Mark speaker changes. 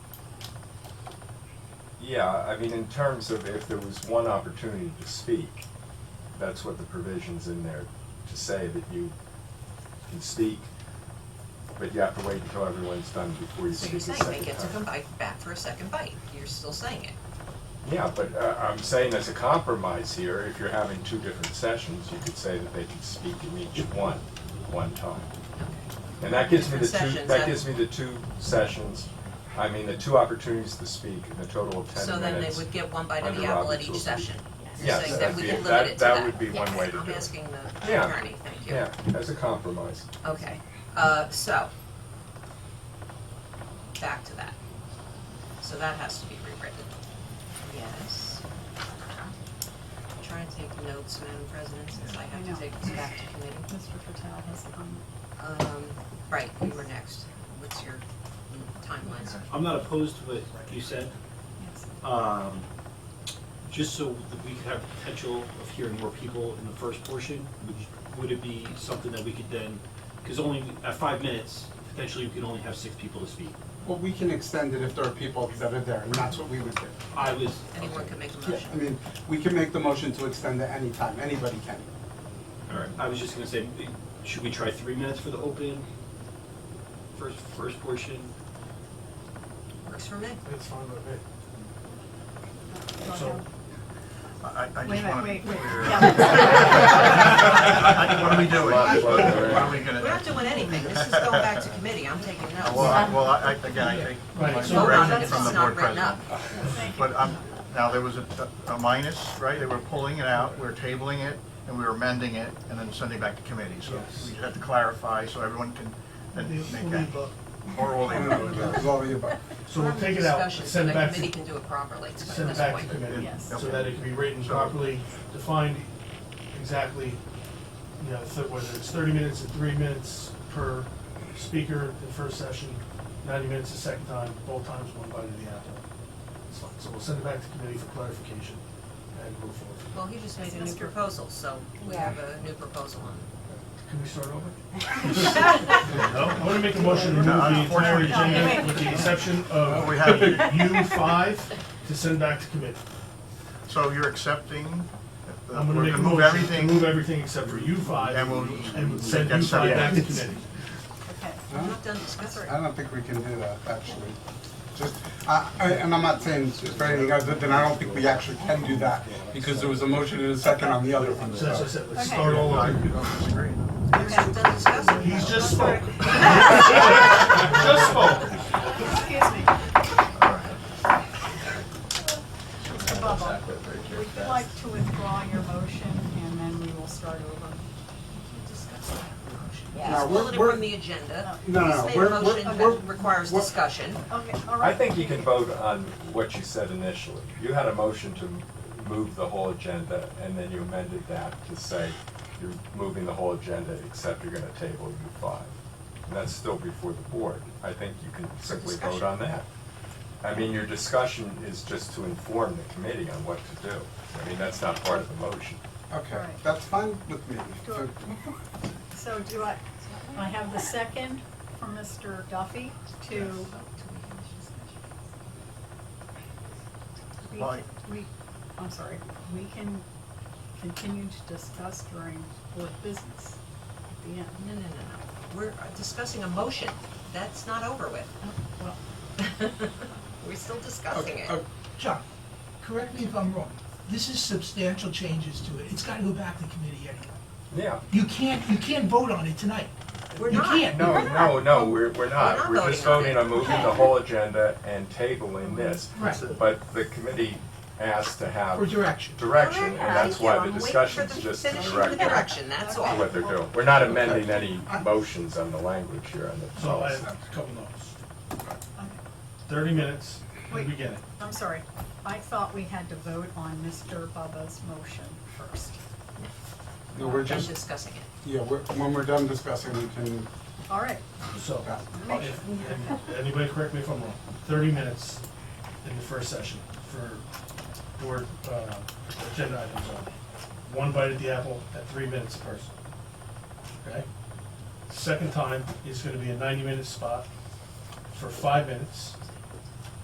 Speaker 1: Yeah, I mean, in terms of if there was one opportunity to speak, that's what the provision's in there, to say that you can speak, but you have to wait until everyone's done before you
Speaker 2: So
Speaker 1: speak
Speaker 2: you're
Speaker 1: a
Speaker 2: saying
Speaker 1: second time.
Speaker 2: they get to come bite, back for a second bite, you're still saying it.
Speaker 1: Yeah, but uh, I'm saying as a compromise here, if you're having two different sessions, you could say that they can speak in each one, one time. And that gives me the
Speaker 2: Different
Speaker 1: two,
Speaker 2: sessions,
Speaker 1: that
Speaker 2: that-
Speaker 1: gives me the two sessions, I mean, the two opportunities to speak, and the total of ten minutes.
Speaker 2: So then they would get one bite of
Speaker 1: under
Speaker 2: the apple at
Speaker 1: Robert's
Speaker 2: each
Speaker 1: rules.
Speaker 2: session. You're
Speaker 1: Yes,
Speaker 2: saying
Speaker 1: that'd
Speaker 2: that we
Speaker 1: be-
Speaker 2: can
Speaker 1: that-
Speaker 2: limit it to
Speaker 1: that
Speaker 2: that.
Speaker 1: would be one
Speaker 2: Yes,
Speaker 1: way to
Speaker 2: I'm
Speaker 1: do it.
Speaker 2: asking the
Speaker 1: Yeah.
Speaker 2: attorney, thank you.
Speaker 1: Yeah, as a compromise.
Speaker 2: Okay, uh, so, back to that. So that has to be rewritten. Yes. I'm Trying to take notes, Madam President, since I have
Speaker 3: I know.
Speaker 2: to take this back to committee.
Speaker 3: Mr. Patel has a comment.
Speaker 2: Um, right, you were next. What's your timelines?
Speaker 4: I'm not opposed to what you said,
Speaker 3: Yes.
Speaker 4: um, just so that we could have potential of hearing more people in the first portion, would, you- would it be something that we could then, because only at five minutes, potentially we can only have six people to speak.
Speaker 5: Well, we can extend it if there are people that are there, and that's what we would do.
Speaker 4: I was,
Speaker 2: Anyone can make a
Speaker 5: Yeah, I
Speaker 2: motion.
Speaker 5: mean, we can make the motion to extend it anytime, anybody can.
Speaker 4: all right, I was just gonna say, should we try three minutes for the open, first, first portion?
Speaker 2: Works for me.
Speaker 6: It's fine with me.
Speaker 3: Go
Speaker 7: So-
Speaker 3: ahead.
Speaker 7: I, I
Speaker 3: Wait a
Speaker 7: just
Speaker 3: minute,
Speaker 7: want to be
Speaker 3: wait, wait.
Speaker 7: clear.
Speaker 3: Yeah.
Speaker 7: I- What are we doing? What are we
Speaker 2: We're not
Speaker 7: gonna?
Speaker 2: doing anything. This is going back to committee. I'm taking notes.
Speaker 7: Well, I- well, I, I- again, I take my
Speaker 6: Right,
Speaker 2: Vote on it
Speaker 7: direction
Speaker 2: if
Speaker 7: from the
Speaker 2: it's not written
Speaker 7: board president.
Speaker 2: up.
Speaker 7: But, um, now, there was a, a minus, right? They were pulling it out, we were tabling it, and we were amending it, and then sending it back to committee. So
Speaker 6: Yes.
Speaker 7: we just have to clarify so everyone can, then make that. Or will they vote?
Speaker 5: It's all of the above.
Speaker 6: So we'll take it out,
Speaker 2: Discussion,
Speaker 6: send it
Speaker 2: So that
Speaker 6: back to,
Speaker 2: committee can do it properly at
Speaker 6: send
Speaker 2: this
Speaker 6: it back to
Speaker 2: point.
Speaker 6: committee.
Speaker 3: Yes.
Speaker 6: So that it can be written properly, defined exactly, you know, th- whether it's thirty minutes or three minutes per speaker the first session, ninety minutes the second time, both times one bite of the apple. It's fine. So we'll send it back to committee for clarification and move forward.
Speaker 2: Well, he just made a new proposal, so we have a new proposal on.
Speaker 6: Can we start over? I want to make a motion to remove
Speaker 7: No,
Speaker 6: the entire
Speaker 7: unfortunately-
Speaker 6: agenda with the exception of
Speaker 7: We have-
Speaker 6: U five to send back to committee.
Speaker 7: So you're accepting, the-
Speaker 6: I'm gonna
Speaker 7: we're
Speaker 6: make a
Speaker 7: gonna
Speaker 6: motion
Speaker 7: move
Speaker 6: to move
Speaker 7: everything,
Speaker 6: everything except for U five
Speaker 7: And we'll-
Speaker 6: and send
Speaker 7: Yeah,
Speaker 6: U
Speaker 7: so-
Speaker 6: five back to
Speaker 7: yeah.
Speaker 6: committee.
Speaker 3: Okay.
Speaker 2: I'm
Speaker 5: No?
Speaker 2: not done discussing.
Speaker 5: I don't think we can do that, actually. Just, I- I- and I'm not saying it's for anything other than I don't think we actually can do that, because there was a motion and a second on the other one,
Speaker 6: So that's what I
Speaker 5: so.
Speaker 6: said, let's
Speaker 3: Okay.
Speaker 6: start all over.
Speaker 2: We're not done discussing.
Speaker 6: He's just spoke. Just spoke.
Speaker 3: Excuse me. Mr. Bubba, would you like to withdraw your motion and then we will start over?
Speaker 2: Discuss that motion.
Speaker 5: No,
Speaker 2: Just
Speaker 5: we're-
Speaker 2: pull it
Speaker 5: we're-
Speaker 2: from the agenda.
Speaker 5: No, no,
Speaker 2: Just
Speaker 5: no,
Speaker 2: made a
Speaker 5: we're,
Speaker 2: motion
Speaker 5: we're, we're,
Speaker 2: that requires
Speaker 5: we're-
Speaker 2: discussion.
Speaker 3: Okay, all right.
Speaker 1: I think you can vote on what you said initially. You had a motion to m- move the whole agenda, and then you amended that to say you're moving the whole agenda, except you're gonna table U five. And that's still before the board. I think you can simply vote
Speaker 2: discussion.
Speaker 1: on that. I mean, your discussion is just to inform the committee on what to do. I mean, that's not part of the motion.
Speaker 5: okay,
Speaker 3: Right.
Speaker 5: that's fine with me.
Speaker 3: Sure. So do I, I have the second from Mr. Duffy to. We
Speaker 7: Well, I-
Speaker 3: can- We, I'm sorry, we can continue to discuss during board business at the end.
Speaker 2: No, no, no, no. We're discussing a motion. That's not over with.
Speaker 3: Well,
Speaker 2: We're still discussing
Speaker 5: Oh, Okay,
Speaker 2: it.
Speaker 5: okay.
Speaker 8: Chuck, correct me if I'm wrong, this is substantial changes to it, it's gotta go back to committee anyway.
Speaker 1: Yeah.
Speaker 8: You can't, you can't vote on it tonight.
Speaker 2: We're
Speaker 8: You
Speaker 2: not.
Speaker 8: can't.
Speaker 1: No, no, no, we're, we're not.
Speaker 2: We're not
Speaker 1: We're just
Speaker 2: voting
Speaker 1: voting
Speaker 2: on
Speaker 1: on moving the whole agenda and tabling this.
Speaker 8: Right.
Speaker 1: But the committee asked to have.
Speaker 8: For direction.
Speaker 1: Direction, and that's
Speaker 2: Thank you.
Speaker 1: why the discussion's just to
Speaker 2: I'm waiting for the finishing the
Speaker 1: direct
Speaker 2: direction, that's
Speaker 1: to
Speaker 2: all.
Speaker 1: what they're doing. We're not amending any motions on the language here on the
Speaker 6: So I
Speaker 1: policy.
Speaker 6: have a couple notes.
Speaker 3: okay.
Speaker 6: Thirty minutes, we
Speaker 3: Wait.
Speaker 6: begin it.
Speaker 3: I'm sorry, I thought we had to vote on Mr. Bubba's motion first.
Speaker 5: No, we're
Speaker 2: Done
Speaker 5: just,
Speaker 2: discussing it.
Speaker 5: yeah, we're, when we're done discussing, we can,
Speaker 3: All right,
Speaker 6: So,
Speaker 5: Yeah.
Speaker 6: if, and anybody correct me if I'm wrong, thirty minutes in the first session for board, uh, agenda items only. One bite at the apple at three minutes per person. Okay? Second time is gonna be a ninety-minute spot for five minutes